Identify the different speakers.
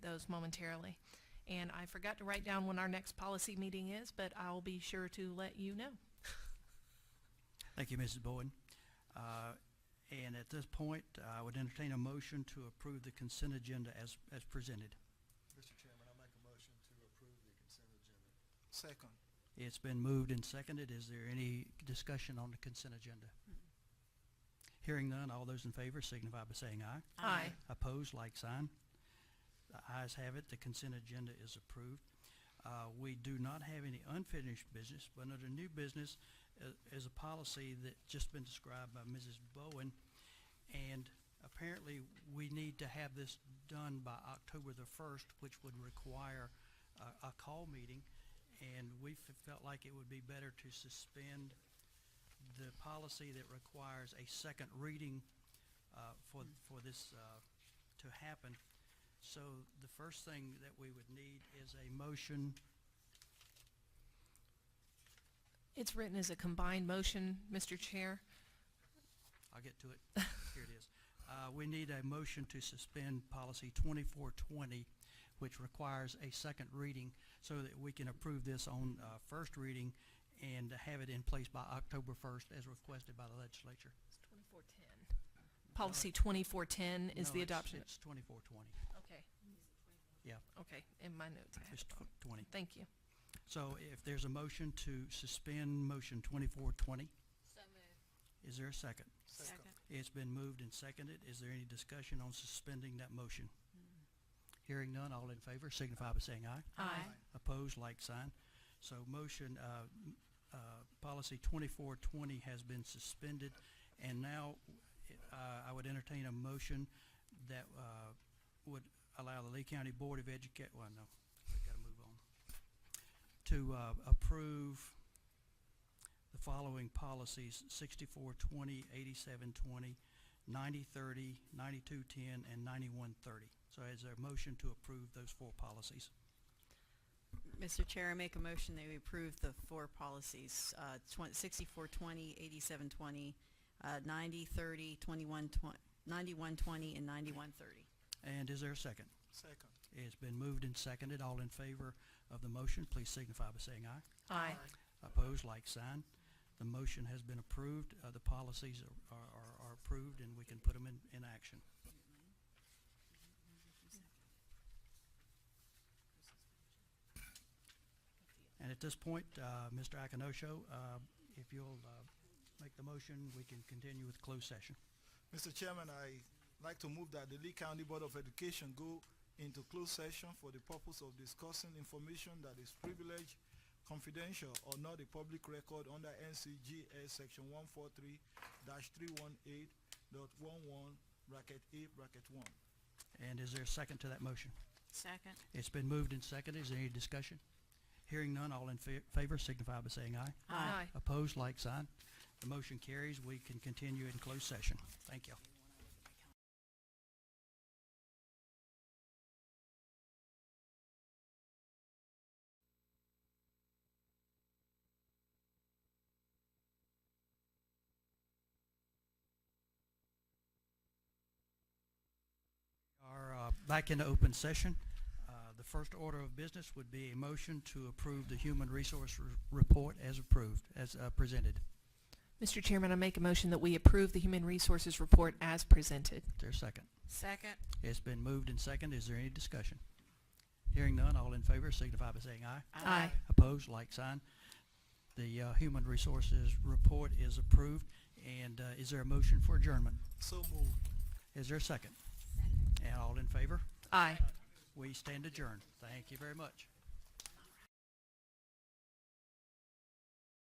Speaker 1: those momentarily. And I forgot to write down when our next policy meeting is, but I'll be sure to let you know.
Speaker 2: Thank you, Mrs. Boyd. Uh, And at this point, I would entertain a motion to approve the consent agenda as, as presented.
Speaker 3: Mr. Chairman, I make a motion to approve the consent agenda. Second.
Speaker 2: It's been moved and seconded. Is there any discussion on the consent agenda? Hearing none, all those in favor signify by saying aye.
Speaker 1: Aye.
Speaker 2: Opposed, like sign. The ayes have it, the consent agenda is approved. Uh, We do not have any unfinished business, but under new business uh, is a policy that just been described by Mrs. Bowen. And apparently, we need to have this done by October the first, which would require a, a call meeting. And we f- felt like it would be better to suspend the policy that requires a second reading uh, for, for this uh, to happen. So the first thing that we would need is a motion,
Speaker 1: It's written as a combined motion, Mr. Chair.
Speaker 2: I'll get to it, here it is. Uh, We need a motion to suspend policy twenty-four twenty, which requires a second reading so that we can approve this on uh, first reading and have it in place by October first as requested by the legislature.
Speaker 1: Twenty-four ten. Policy twenty-four ten is
Speaker 2: No,
Speaker 1: the
Speaker 2: it's-
Speaker 1: adoption.
Speaker 2: It's twenty-four twenty,
Speaker 1: Okay.
Speaker 2: Yeah.
Speaker 1: Okay, in my notes. I had
Speaker 2: it's
Speaker 1: it wrong.
Speaker 2: tw- twenty.
Speaker 1: Thank you.
Speaker 2: So if there's a motion to suspend motion twenty-four twenty,
Speaker 4: So moved.
Speaker 2: is there a second? It's been moved and seconded. Is there any discussion on suspending that motion? Hearing none, all in favor signify by saying aye.
Speaker 1: Aye.
Speaker 2: Opposed, like sign. So motion, uh, m- uh, policy twenty-four twenty has been suspended. And now, uh, I would entertain a motion that, uh, would allow the Lee County Board of Educa- well, no, we gotta move on. To, uh, approve the following policies, sixty-four twenty, eighty-seven twenty, ninety thirty, ninety-two ten, and ninety-one thirty. So is there a motion to approve those four policies?
Speaker 4: Mr. Chair, I make a motion that we approve the four policies, uh, twen- sixty-four twenty, eighty-seven twenty, uh, ninety thirty, twenty-one twen- ninety-one twenty, and ninety-one thirty.
Speaker 2: And is there a second?
Speaker 3: Second.
Speaker 2: It's been moved and seconded. All in favor of the motion, please signify by saying aye.
Speaker 1: Aye.
Speaker 2: Opposed, like sign. The motion has been approved. Uh, the policies are, are, are approved and we can put them in, in action. And at this point, uh, Mr. Akinosho, uh, if you'll, uh, make the motion, we can continue with closed session.
Speaker 3: Mr. Chairman, I like to move that the Lee County Board of Education go into closed session for the purpose of discussing information that is privileged, confidential, or not a public record under NCGS Section one four three three one eight dot one one bracket A bracket one.
Speaker 2: And is there a second to that motion?
Speaker 4: Second.
Speaker 2: It's been moved and seconded. Is there any discussion? Hearing none, all in fa- favor signify by saying aye.
Speaker 1: Aye.
Speaker 2: Opposed, like sign. The motion carries. We can continue in closed session. Thank you. Are uh, back into open session. Uh, The first order of business would be a motion to approve the human resource r- report as approved, as uh, presented.
Speaker 1: Mr. Chairman, I make a motion that we approve the human resources report as presented.
Speaker 2: Is there a second?
Speaker 4: Second.
Speaker 2: It's been moved and seconded. Is there any discussion? Hearing none, all in favor signify by saying aye.
Speaker 1: Aye.
Speaker 2: Opposed, like sign. The uh, human resources report is approved. And uh, is there a motion for adjournment?
Speaker 3: So moved.
Speaker 2: Is there a second? And all in favor?
Speaker 1: Aye.
Speaker 2: We stand adjourned. Thank you very much.